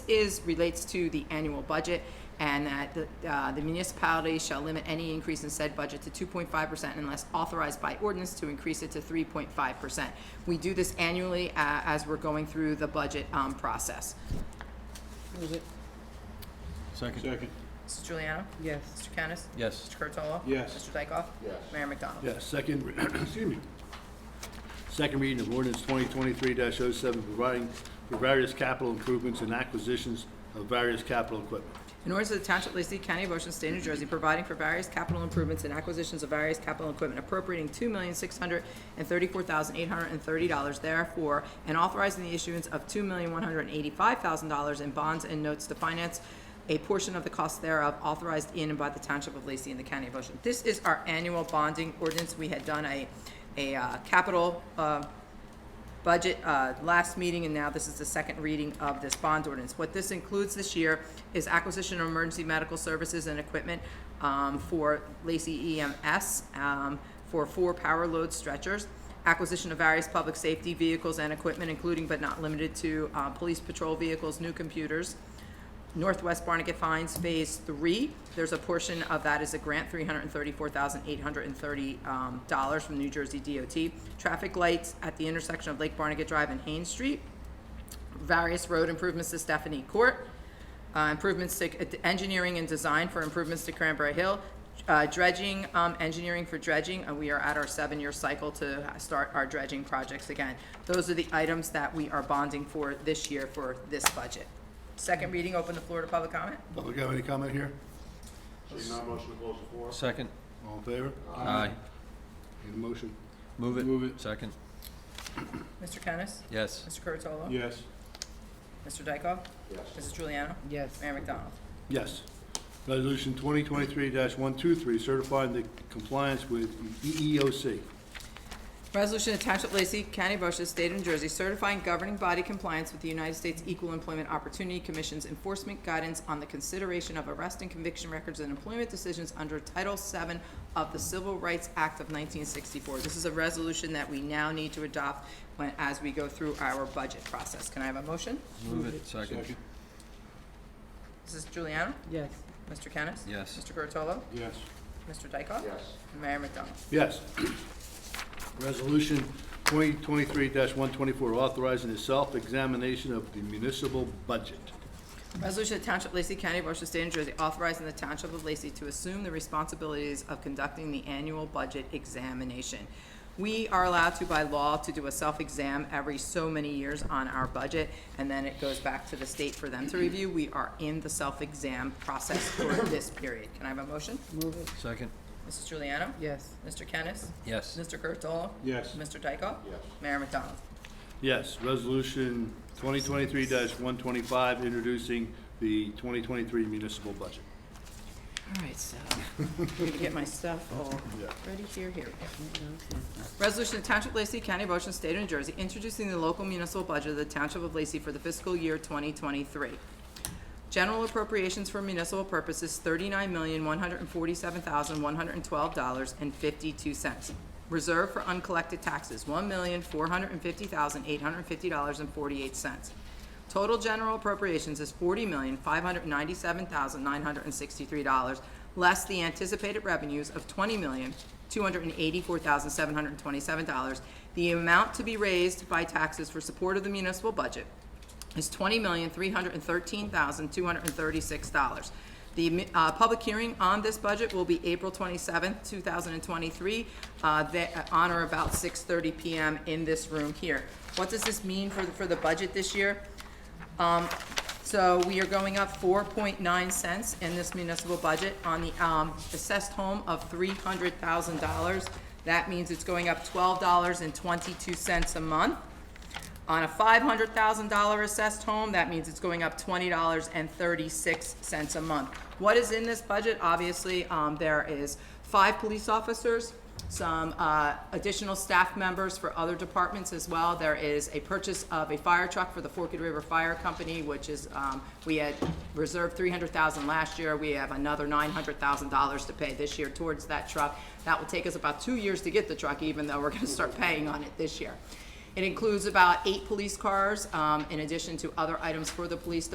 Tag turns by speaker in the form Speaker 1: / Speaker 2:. Speaker 1: is relates to the annual budget, and that the, uh, the municipality shall limit any increase in said budget to two point five percent unless authorized by ordinance to increase it to three point five percent. We do this annually, uh, as we're going through the budget, um, process.
Speaker 2: Move it.
Speaker 3: Second.
Speaker 4: Second.
Speaker 1: Mrs. Juliana?
Speaker 2: Yes.
Speaker 1: Mr. Kennis?
Speaker 3: Yes.
Speaker 1: Mr. Curatolo?
Speaker 4: Yes.
Speaker 1: Mr. Dykoff?
Speaker 4: Yes.
Speaker 1: Mayor McDonald?
Speaker 5: Yeah, second, excuse me. Second reading of ordinance twenty twenty-three 7 providing for various capital improvements and acquisitions of various capital equipment.
Speaker 1: In order to the Township of Lacey County, Ocean State, New Jersey, providing for various capital improvements and acquisitions of various capital equipment appropriating two million six hundred and thirty-four thousand eight hundred and thirty dollars therefore, and authorizing the issuance of two million one hundred and eighty-five thousand dollars in bonds and notes to finance a portion of the cost thereof authorized in and by the Township of Lacey and the County of Ocean. This is our annual bonding ordinance. We had done a, a uh, capital, uh, budget uh, last meeting, and now this is the second reading of this bond ordinance. What this includes this year is acquisition of emergency medical services and equipment um, for Lacey EMS um, for four power load stretchers, acquisition of various public safety vehicles and equipment, including but not limited to uh, police patrol vehicles, new computers, Northwest Barnegat Fines Phase Three. There's a portion of that is a grant, three hundred and thirty-four thousand eight hundred and thirty um, dollars from New Jersey DOT. Traffic lights at the intersection of Lake Barnegat Drive and Haynes Street. Various road improvements to Stephanie Court. Uh, improvements to uh, engineering and design for improvements to Cranberry Hill. Uh, dredging, um, engineering for dredging, and we are at our seven-year cycle to uh, start our dredging projects again. Those are the items that we are bonding for this year for this budget. Second reading, open the floor to public comment.
Speaker 5: Public have any comment here?
Speaker 4: Seeing none, motion to close the floor?
Speaker 3: Second.
Speaker 5: All in favor?
Speaker 3: Aye.
Speaker 5: Need a motion?
Speaker 3: Move it.
Speaker 4: Move it.
Speaker 3: Second.
Speaker 1: Mr. Kennis?
Speaker 3: Yes.
Speaker 1: Mr. Curatolo?
Speaker 4: Yes.
Speaker 1: Mr. Dykoff?
Speaker 4: Yes.
Speaker 1: Mrs. Juliana?
Speaker 2: Yes.
Speaker 1: Mayor McDonald?
Speaker 5: Yes. Resolution twenty twenty-three one two three, certifying the compliance with E EEOC.
Speaker 1: Resolution attached Township of Lacey County, of Ocean State of New Jersey, certifying governing body compliance with the United States Equal Employment Opportunity Commission's enforcement guidance on the consideration of arrest and conviction records and employment decisions under Title VII of the Civil Rights Act of 1964. This is a resolution that we now need to adopt when, as we go through our budget process. Can I have a motion?
Speaker 3: Move it. Second.
Speaker 4: Second.
Speaker 1: Mrs. Juliana?
Speaker 2: Yes.
Speaker 1: Mr. Kennis?
Speaker 3: Yes.
Speaker 1: Mr. Curatolo?
Speaker 4: Yes.
Speaker 1: Mr. Dykoff?
Speaker 4: Yes.
Speaker 1: And Mayor McDonald?
Speaker 5: Yes. Resolution twenty twenty-three one twenty-four, authorizing the self-examination of the municipal budget.
Speaker 1: Resolution of Township of Lacey County, Ocean State, New Jersey, authorizing the Township of Lacey to assume the responsibilities of conducting the annual budget examination. We are allowed to, by law, to do a self-exam every so many years on our budget, and then it goes back to the state for them to review. We are in the self-exam process for this period. Can I have a motion?
Speaker 2: Move it.
Speaker 3: Second.
Speaker 1: Mrs. Juliana?
Speaker 2: Yes.
Speaker 1: Mr. Kennis?
Speaker 3: Yes.
Speaker 1: Mr. Curatolo?
Speaker 4: Yes.
Speaker 1: Mr. Dykoff?
Speaker 4: Yes.
Speaker 1: Mayor McDonald?
Speaker 5: Yes, resolution twenty twenty-three one twenty-five, introducing the twenty twenty-three municipal budget.
Speaker 1: All right, so, I'm gonna get my stuff all ready here, here. Resolution of Township of Lacey County, of Ocean State of New Jersey, introducing the local municipal budget of the Township of Lacey for the fiscal year twenty twenty-three. General appropriations for municipal purposes, thirty-nine million, one hundred and forty-seven thousand, one hundred and twelve dollars and fifty-two cents. Reserve for uncollected taxes, one million, four hundred and fifty thousand, eight hundred and fifty dollars and forty-eight cents. Total general appropriations is forty million, five hundred and ninety-seven thousand, nine hundred and sixty-three dollars, less the anticipated revenues of twenty million, two hundred and eighty-four thousand, seven hundred and twenty-seven dollars. The amount to be raised by taxes for support of the municipal budget is twenty million, three hundred and thirteen thousand, two hundred and thirty-six dollars. The, uh, public hearing on this budget will be April twenty-seventh, two thousand and twenty-three, uh, that, on or about six thirty PM in this room here. What does this mean for, the- for the budget this year? Um, So we are going up four point nine cents in this municipal budget on the, um, assessed home of three hundred thousand dollars. That means it's going up twelve dollars and twenty-two cents a month. On a five hundred thousand dollar assessed home, that means it's going up twenty dollars and thirty-six cents a month. What is in this budget? Obviously, um, there is five police officers, some, uh, additional staff members for other departments as well. There is a purchase of a fire truck for the Forked River Fire Company, which is, um, we had reserved three hundred thousand last year. We have another nine hundred thousand dollars to pay this year towards that truck. That will take us about two years to get the truck, even though we're gonna start paying on it this year. It includes about eight police cars, um, in addition to other items for the police